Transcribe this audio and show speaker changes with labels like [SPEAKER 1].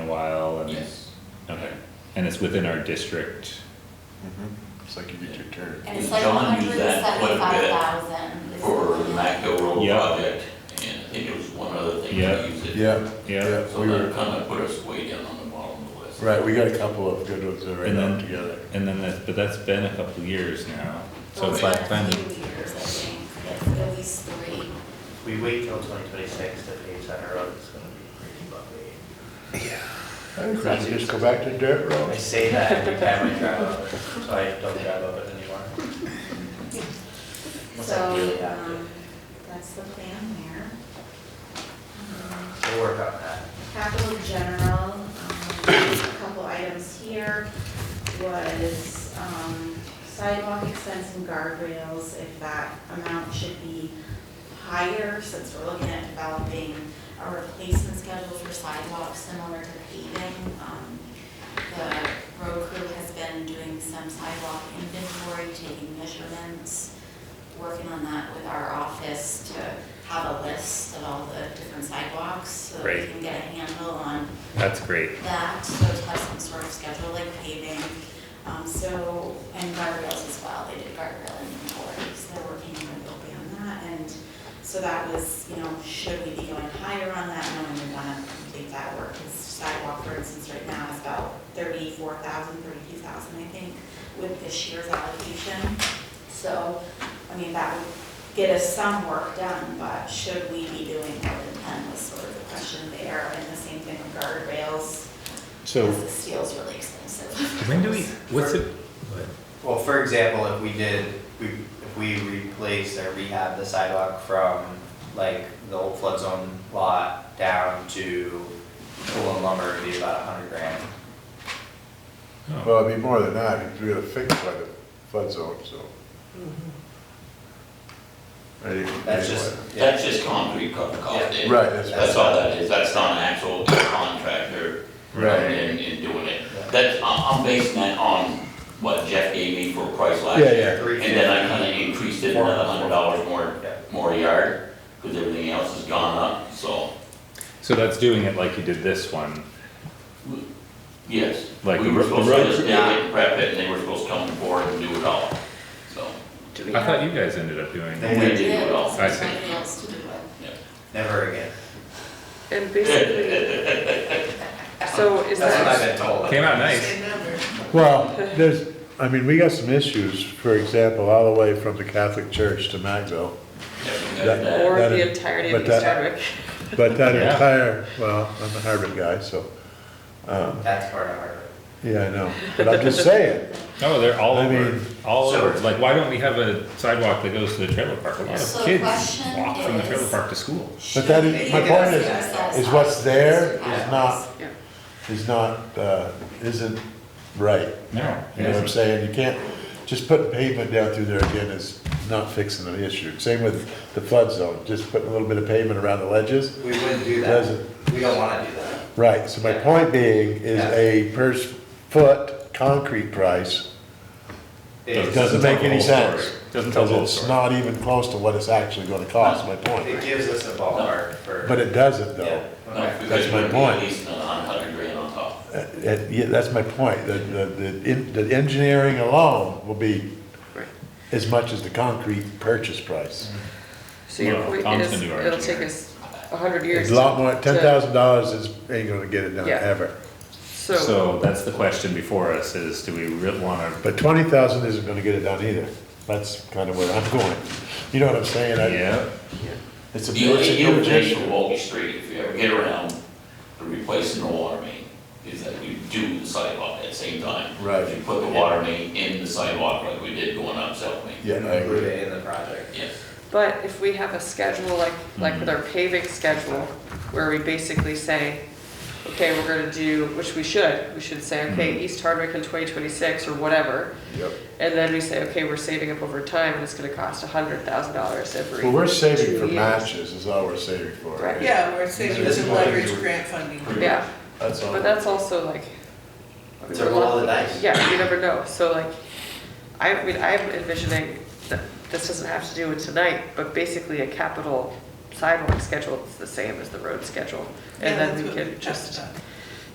[SPEAKER 1] and it's within our district.
[SPEAKER 2] Mm-hmm.
[SPEAKER 3] It's like you get your turn.
[SPEAKER 4] And it's
[SPEAKER 5] And
[SPEAKER 4] like
[SPEAKER 5] John used that quite a bit
[SPEAKER 4] 175,000.
[SPEAKER 5] for the Macdo Road
[SPEAKER 1] Yeah.
[SPEAKER 5] project, and I think it was one other thing
[SPEAKER 1] Yeah.
[SPEAKER 5] to use it.
[SPEAKER 3] Yeah,
[SPEAKER 1] Yeah,
[SPEAKER 3] yeah,
[SPEAKER 5] So
[SPEAKER 3] we
[SPEAKER 5] that
[SPEAKER 3] were,
[SPEAKER 5] kind of put us way down on the bottom of the list.
[SPEAKER 3] right, we got a couple of good ones that are right
[SPEAKER 1] And
[SPEAKER 3] now
[SPEAKER 1] then-
[SPEAKER 3] together.
[SPEAKER 1] and then that's, but that's been a couple years now, so it's
[SPEAKER 4] Well,
[SPEAKER 1] like,
[SPEAKER 4] it's been a
[SPEAKER 1] then,
[SPEAKER 4] few years, I think, It's at least three.
[SPEAKER 6] We wait till twenty twenty-six to pave Center Road, it's gonna be pretty bumpy.
[SPEAKER 3] I think we should just go back to dirt
[SPEAKER 6] I
[SPEAKER 3] roads.
[SPEAKER 6] say that every time I drive over, it, so I don't drive over it anymore. What's that deal
[SPEAKER 4] So,
[SPEAKER 6] about
[SPEAKER 4] um, that's the plan there. Um,
[SPEAKER 6] We'll work on that.
[SPEAKER 4] Capital general, um, a couple items here was um, sidewalk expense and guardrails, if that amount should be higher, since we're looking at developing a replacement schedule for sidewalks similar to paving. Um, The road crew has been doing some sidewalk inventory, taking measurements, working on that with our office to have a list of all the different sidewalks, so that we
[SPEAKER 1] Great.
[SPEAKER 4] can get a handle on
[SPEAKER 1] that's great.
[SPEAKER 4] that, so to have some sort of schedule like paving, um, so, and guardrails as well, they did guardrail inventory, so they're working on building on that, and so that was, you know, should we be going higher on that, knowing we wanna complete that work, because sidewalk, for instance, right now is about thirty-four thousand, thirty-two thousand, I think, with this year's allocation, so, I mean, that would get us some work done, but should we be doing more than ten was sort of the question there, and the same thing with guardrails,
[SPEAKER 1] So,
[SPEAKER 4] because the steel's really expensive.
[SPEAKER 1] when do we, what's it,
[SPEAKER 2] Well, for example, if we did, we, if we replaced or rehab the sidewalk from like the old flood zone lot down to pool and lumber, it'd be about a hundred grand.
[SPEAKER 1] oh,
[SPEAKER 3] Well, it'd be more than that, because we gotta fix by the flood zone, so. Mm-hmm. Right,
[SPEAKER 2] That's just, yeah,
[SPEAKER 5] That's just concrete co- cost.
[SPEAKER 2] Yeah.
[SPEAKER 5] in.
[SPEAKER 3] Right, that's-
[SPEAKER 5] That's all that is, that's not an actual contractor coming
[SPEAKER 3] Right,
[SPEAKER 5] in and doing it.
[SPEAKER 2] Yeah.
[SPEAKER 5] That's, I'm, I'm basing that on what Jeff gave me for a price last
[SPEAKER 3] Yeah,
[SPEAKER 5] year.
[SPEAKER 3] yeah.
[SPEAKER 5] And then I kinda increased it another hundred dollars more,
[SPEAKER 2] Yeah.
[SPEAKER 5] more a yard, because everything else has gone up, so,
[SPEAKER 1] so that's doing it like you did this one,
[SPEAKER 5] yes.
[SPEAKER 1] Like
[SPEAKER 5] We
[SPEAKER 1] the
[SPEAKER 5] were
[SPEAKER 1] ro- the
[SPEAKER 5] supposed to
[SPEAKER 1] road-
[SPEAKER 5] just dig it, prep it, and they were supposed to come forward and do it all, so.
[SPEAKER 2] Do we
[SPEAKER 1] I thought you guys ended up doing it.
[SPEAKER 5] We did do it all.
[SPEAKER 1] I see.
[SPEAKER 4] Somebody else to do it.
[SPEAKER 2] never again.
[SPEAKER 7] And basically, so is
[SPEAKER 2] That's what I've
[SPEAKER 7] that,
[SPEAKER 2] been told.
[SPEAKER 1] Came out nice,
[SPEAKER 3] well, there's, I mean, we got some issues, for example, all the way from the Catholic Church to
[SPEAKER 5] Yeah,
[SPEAKER 3] Magville.
[SPEAKER 5] we
[SPEAKER 3] That-
[SPEAKER 5] got that.
[SPEAKER 7] or
[SPEAKER 3] That
[SPEAKER 7] the
[SPEAKER 3] is-
[SPEAKER 7] entirety
[SPEAKER 3] but
[SPEAKER 7] of East
[SPEAKER 3] that-
[SPEAKER 7] Hardwick?
[SPEAKER 3] But that
[SPEAKER 1] Yeah.
[SPEAKER 3] entire, well, I'm a Harvard guy, so, um,
[SPEAKER 2] That's part of our.
[SPEAKER 3] yeah, I know, but I'm just saying,
[SPEAKER 1] oh, they're all
[SPEAKER 3] I
[SPEAKER 1] over,
[SPEAKER 3] mean-
[SPEAKER 1] all
[SPEAKER 2] So-
[SPEAKER 1] over, like, why don't we have a sidewalk that goes to the trailer park? A lot
[SPEAKER 4] So
[SPEAKER 1] of
[SPEAKER 4] the
[SPEAKER 1] kids
[SPEAKER 4] question
[SPEAKER 1] walk from the
[SPEAKER 4] is-
[SPEAKER 1] trailer park to school.
[SPEAKER 3] But that is-
[SPEAKER 4] Should
[SPEAKER 3] my
[SPEAKER 4] we
[SPEAKER 3] point is-
[SPEAKER 4] discuss
[SPEAKER 3] is what's there
[SPEAKER 4] sidewalks?
[SPEAKER 3] is not-
[SPEAKER 7] Yeah.
[SPEAKER 3] is not, uh, isn't right.
[SPEAKER 1] No, it
[SPEAKER 3] You know what I'm
[SPEAKER 1] isn't.
[SPEAKER 3] saying? You can't, just putting pavement down through there again is not fixing the issue. Same with the flood zone, just putting a little bit of pavement around the ledges.
[SPEAKER 2] We wouldn't do that.
[SPEAKER 3] Doesn't-
[SPEAKER 2] We don't wanna do that.
[SPEAKER 3] Right, so my point being is a per s- foot concrete price
[SPEAKER 2] It-
[SPEAKER 1] Does-
[SPEAKER 3] doesn't make any
[SPEAKER 1] Doesn't tell the whole
[SPEAKER 3] sense.
[SPEAKER 1] story. Doesn't tell the whole
[SPEAKER 3] Because it's
[SPEAKER 1] story.
[SPEAKER 3] not even close to what it's actually gonna cost, my
[SPEAKER 2] It
[SPEAKER 3] point.
[SPEAKER 2] gives us a ballpark for.
[SPEAKER 3] But it doesn't
[SPEAKER 2] Yeah,
[SPEAKER 3] though.
[SPEAKER 5] No,
[SPEAKER 2] okay.
[SPEAKER 5] because
[SPEAKER 3] That's my
[SPEAKER 5] we're
[SPEAKER 3] point.
[SPEAKER 5] at least a hundred grand on top.
[SPEAKER 3] Uh, uh, yeah, that's my point. The, the, the en- the engineering alone will be
[SPEAKER 7] Right.
[SPEAKER 3] as much as the concrete purchase price.
[SPEAKER 7] So your
[SPEAKER 1] Well,
[SPEAKER 7] point
[SPEAKER 1] Tom's
[SPEAKER 7] is,
[SPEAKER 1] gonna do our
[SPEAKER 7] it'll take
[SPEAKER 1] engineering.
[SPEAKER 7] us a hundred years.
[SPEAKER 3] It's a lot
[SPEAKER 7] to-
[SPEAKER 3] more,
[SPEAKER 7] to-
[SPEAKER 3] ten thousand dollars is, ain't gonna get it done
[SPEAKER 7] Yeah.
[SPEAKER 3] ever.
[SPEAKER 7] So,
[SPEAKER 1] So that's the question before us is, do we really wanna,
[SPEAKER 3] But twenty thousand isn't gonna get it done either. That's kind of where I'm going. You know what I'm saying? I-
[SPEAKER 1] yeah,
[SPEAKER 3] It's a,
[SPEAKER 5] You,
[SPEAKER 3] it's a
[SPEAKER 5] you
[SPEAKER 3] huge
[SPEAKER 5] pay for
[SPEAKER 3] issue.
[SPEAKER 5] Walkie Street if you ever get around to replacing the water main, is that you do the sidewalk at the same time.
[SPEAKER 3] Right.
[SPEAKER 5] You put the water main in the sidewalk like we did going up South Main.
[SPEAKER 3] Yeah, I
[SPEAKER 2] Include
[SPEAKER 3] agree.
[SPEAKER 2] it in the project.
[SPEAKER 5] Yes.
[SPEAKER 7] but if we have a schedule like,
[SPEAKER 1] Mm.
[SPEAKER 7] like with our paving schedule, where we basically say, okay, we're gonna do, which we should, we should say, okay,
[SPEAKER 1] Mm.
[SPEAKER 7] East Hardwick in twenty twenty-six or whatever.
[SPEAKER 3] Yep.
[SPEAKER 7] And then we say, okay, we're saving up over time and it's gonna cost a hundred thousand dollars every.
[SPEAKER 3] Well, we're
[SPEAKER 7] two
[SPEAKER 3] saving for
[SPEAKER 7] years.
[SPEAKER 3] matches is all we're saving for.
[SPEAKER 7] Right.
[SPEAKER 8] Yeah, we're saving
[SPEAKER 3] These are
[SPEAKER 8] some
[SPEAKER 3] the ones
[SPEAKER 8] leverage
[SPEAKER 3] you-
[SPEAKER 8] grant funding.
[SPEAKER 7] Yeah,
[SPEAKER 3] That's all.
[SPEAKER 7] but that's also like.
[SPEAKER 2] It's a roll of the dice.
[SPEAKER 7] Yeah, you never know, so like, I mean, I'm envisioning that this doesn't have to do with tonight, but basically a capital sidewalk schedule that's the same as the road schedule.
[SPEAKER 8] Yeah,
[SPEAKER 7] And then
[SPEAKER 8] that's
[SPEAKER 7] we
[SPEAKER 8] what
[SPEAKER 7] can
[SPEAKER 8] talked
[SPEAKER 7] just
[SPEAKER 8] about.